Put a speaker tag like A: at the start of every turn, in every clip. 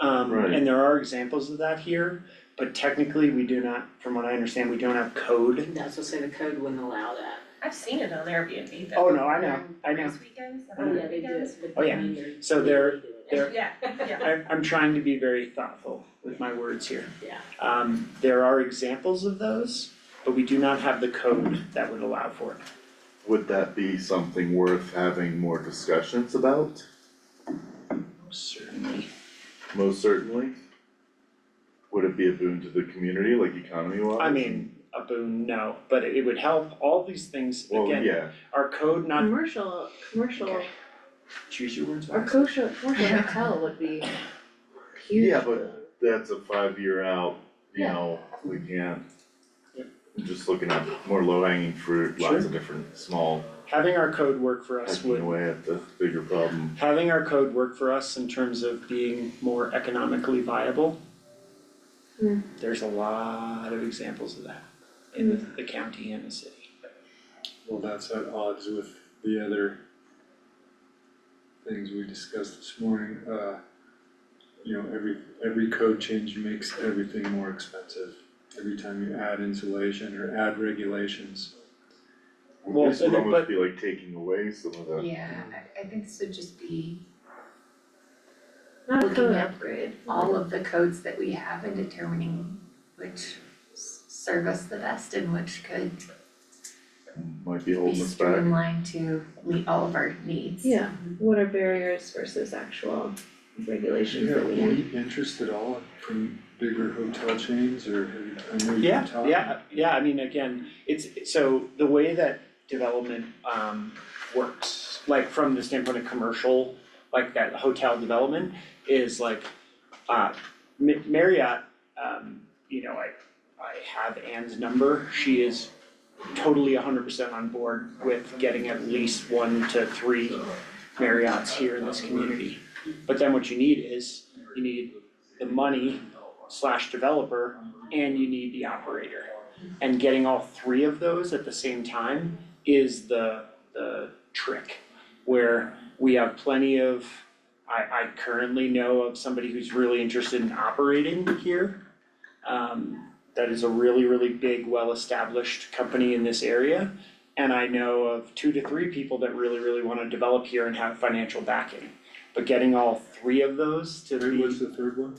A: Um,
B: Right.
A: and there are examples of that here, but technically, we do not, from what I understand, we don't have code.
C: That's what say the code wouldn't allow that.
D: I've seen it on Airbnb though.
A: Oh, no, I know, I know.
D: Race weekends, the
A: I know.
D: holiday weekends.
A: Oh, yeah. So there- there-
D: Yeah, yeah.
A: I'm, I'm trying to be very thoughtful with my words here.
C: Yeah.
A: Um, there are examples of those, but we do not have the code that would allow for it.
B: Would that be something worth having more discussions about?
A: Certainly.
B: Most certainly. Would it be a boon to the community, like economy wise?
A: I mean, a boon, no, but it would help, all these things,
B: Well,
A: again,
B: yeah,
A: our code not,
E: Commercial, commercial,
A: Okay. choose your words
E: or
A: wisely.
E: kosher, commercial hotel would be huge.
B: Yeah, but- that's a five year out, you
E: Yeah.
B: know, we can't.
A: Yep.
B: I'm Just looking at more low hanging fruit, lots of different small,
A: Having our code work for us
B: hacking
A: would
B: away at the bigger problem.
A: having our code work for us in terms of being more economically viable.
E: Hmm.
A: There's a lot of examples of that in the, the county and the city.
F: Well, that's at odds with the other things we discussed this morning, uh, you know, every, every code change makes everything more expensive. Every time you add insulation or add regulations,
A: Well,
B: This would
A: and- but-
B: almost be like taking away some of the,
G: Yeah, I I think this would just be
E: Not a
G: looking
E: code
G: upgrade, all of the codes that we have and determining which s- serve us the best and which could
B: might be
G: be
B: holding us back.
G: streamlined to meet all of our needs.
E: Yeah, what are barriers versus actual regulations
F: yeah,
E: that
F: are
E: we have?
F: we interested all from bigger hotel chains or have you, I know you've
A: Yeah,
F: been talking.
A: yeah, yeah, I mean, again, it's, so the way that development um works, like from the standpoint of commercial, like that hotel development is like, uh, Ma- Marriott, um, you know, I, I have Anne's number, she is totally hundred percent on board with getting at least one to three Marriotts here in this community. But then what you need is, you need the money slash developer and you need the operator. And getting all three of those at the same time is the, the trick. Where we have plenty of, I, I currently know of somebody who's really interested in operating here. Um, that is a really, really big, well-established company in this area. And I know of two to three people that really, really wanna develop here and have financial backing. But getting all three of those to be.
F: Wait, what's the third one?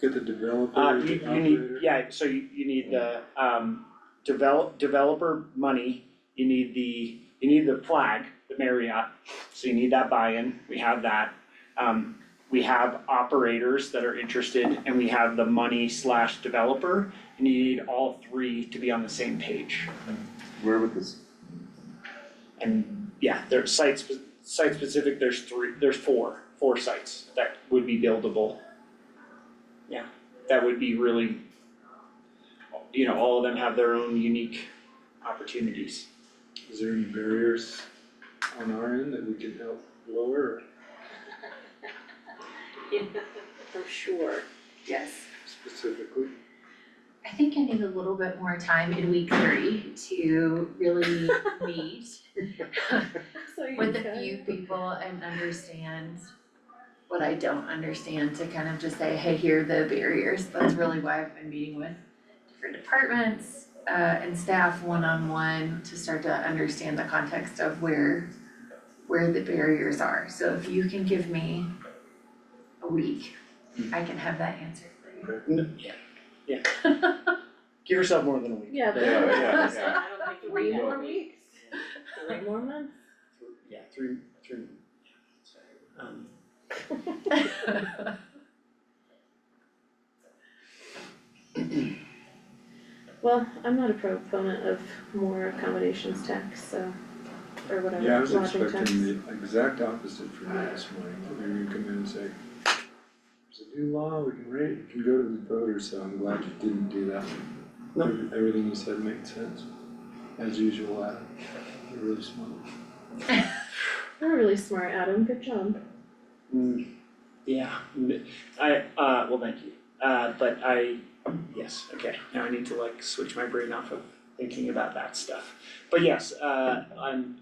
F: Get the developer
A: Uh,
F: or
A: you,
F: the
A: you need,
F: operator?
A: yeah, so you, you need the, um, develop, developer money, you need the, you need the flag, the Marriott, so you need that buy-in, we have that. Um, we have operators that are interested, and we have the money slash developer, and you need all three to be on the same page.
B: Where would this
A: And, yeah, there's sites, site specific, there's three, there's four, four sites that would be buildable. Yeah, that would be really, you know, all of them have their own unique opportunities.
F: Is there any barriers on our end that we can help lower or
C: Yeah, for sure.
G: Yes.
F: specifically?
G: I think I need a little bit more time in week three to really meet
E: So you
G: with a
E: could-
G: few people and understand what I don't understand to kind of just say, hey, here are the barriers. That's really why I've been meeting with different departments uh and staff one-on-one to start to understand the context of where where the barriers are. So if you can give me a week, I can have that answer for you.
A: Yeah. Yeah. Give yourself more than a week.
E: Yeah, but.
B: Yeah, yeah,
C: So I don't think we
E: Three
C: have
E: more
C: any-
E: weeks. Three more months.
A: Yeah, three, three. Um,
E: Well, I'm not a proponent of more accommodations tax, so, or whatever, lodging tax.
F: Yeah, I was expecting the exact opposite from you this morning, that we would come in and say, there's a new law, we can rate, we can go to the voters, so I'm glad you didn't do that.
A: No.
F: Every- Everything you said made sense, as usual, Adam, you're really smart.
E: You're really smart, Adam, good job.
A: mm, yeah, m- I, uh, well, thank you, uh, but I, yes, okay, now I need to like switch my brain off of thinking about that stuff. But yes, uh, I'm,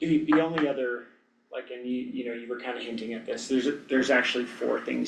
A: the, the only other, like, and you, you know, you were kind of hinting at this, there's, there's actually four things